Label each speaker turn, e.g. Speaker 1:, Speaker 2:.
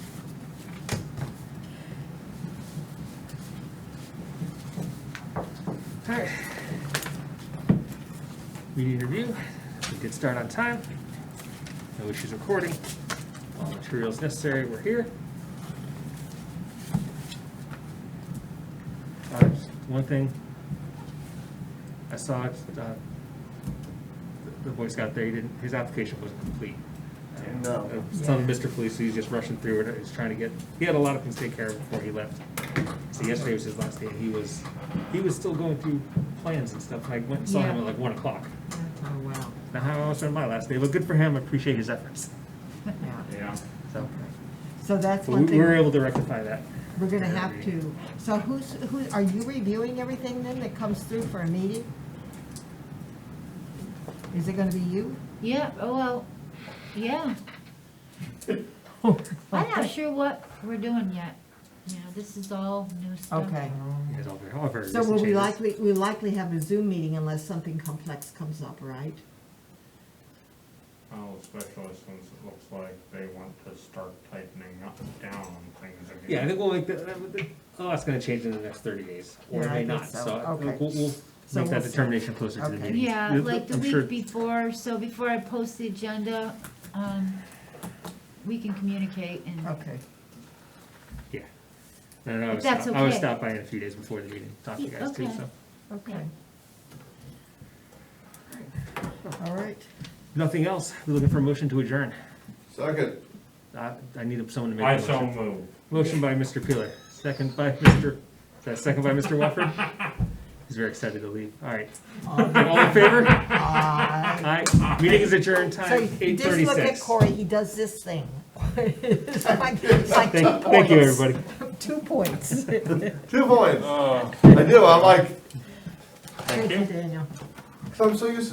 Speaker 1: Alright. Meeting review, we did start on time. No issues recording. All materials necessary, were here. Uh, just One thing, I saw, uh, the- the Boy Scout there, he didn't, his application wasn't complete. And,
Speaker 2: No.
Speaker 1: uh, Some Mr. Felice, he's just rushing through it, he's trying to get, he had a lot of things to take care of before he left. So yesterday was his last day, and he was, he was still going through plans and stuff, and I went and saw him
Speaker 3: Yeah.
Speaker 1: at like one o'clock.
Speaker 3: Oh, wow.
Speaker 1: Now, how I was on my last day, but good for him, I appreciate his efforts,
Speaker 3: Yeah.
Speaker 4: Yeah.
Speaker 1: so.
Speaker 3: So that's
Speaker 1: But
Speaker 3: one
Speaker 1: we
Speaker 3: thing,
Speaker 1: were
Speaker 3: we're
Speaker 1: able to rectify that.
Speaker 3: gonna have to, so who's, who, are you reviewing everything then that comes through for a meeting? Is it gonna be you?
Speaker 5: Yeah, oh, well, yeah.
Speaker 1: Oh.
Speaker 5: I'm not sure what we're doing yet. You know, this is all new stuff.
Speaker 3: Okay,
Speaker 1: You guys all very- all very
Speaker 3: so
Speaker 1: recent
Speaker 3: will we
Speaker 1: changes.
Speaker 3: likely, we likely have a Zoom meeting unless something complex comes up, right?
Speaker 4: Well, especially since Oh, it looks like they want to start tightening up, down on things again.
Speaker 1: Yeah, I think we'll make that, that- that- oh, that's gonna change in the next thirty days, or
Speaker 3: Yeah,
Speaker 1: it
Speaker 3: I
Speaker 1: may
Speaker 3: think
Speaker 1: not,
Speaker 3: so.
Speaker 1: so I-
Speaker 3: Okay.
Speaker 1: we'll, we'll
Speaker 3: So
Speaker 1: make that
Speaker 3: we'll see.
Speaker 1: determination closer to the
Speaker 3: Okay.
Speaker 1: meeting.
Speaker 5: Yeah,
Speaker 1: We'll-
Speaker 5: like the
Speaker 1: I'm sure-
Speaker 5: week before, so before I post the agenda, um, we can communicate and,
Speaker 3: Okay.
Speaker 1: Yeah. No, no, I was,
Speaker 5: that's
Speaker 1: stop- I was
Speaker 5: okay.
Speaker 1: stopped by in a few days before the meeting, talk to you
Speaker 5: Yeah,
Speaker 1: guys too,
Speaker 5: okay.
Speaker 1: so.
Speaker 3: Okay. All right,
Speaker 1: Nothing else, we're looking for a motion to adjourn.
Speaker 2: Second.
Speaker 1: I, I need someone to make
Speaker 4: I
Speaker 1: a
Speaker 4: so
Speaker 1: motion.
Speaker 4: move.
Speaker 1: Motion by Mr. Peeler, second by Mr., is that second by Mr. Wofford? He's very excited to leave, all right. All in favor?
Speaker 3: Aye.
Speaker 1: Aye, meeting is adjourned,
Speaker 3: So
Speaker 1: time
Speaker 3: you
Speaker 1: eight
Speaker 3: just look at
Speaker 1: thirty-six.
Speaker 3: Corey, he does this thing. It's like- it's like two
Speaker 1: Thank, thank you,
Speaker 3: points.
Speaker 1: everybody.
Speaker 3: Two points.
Speaker 2: Two points. I do. I'm like,
Speaker 3: Thank you, Daniel.
Speaker 2: i I'm so used to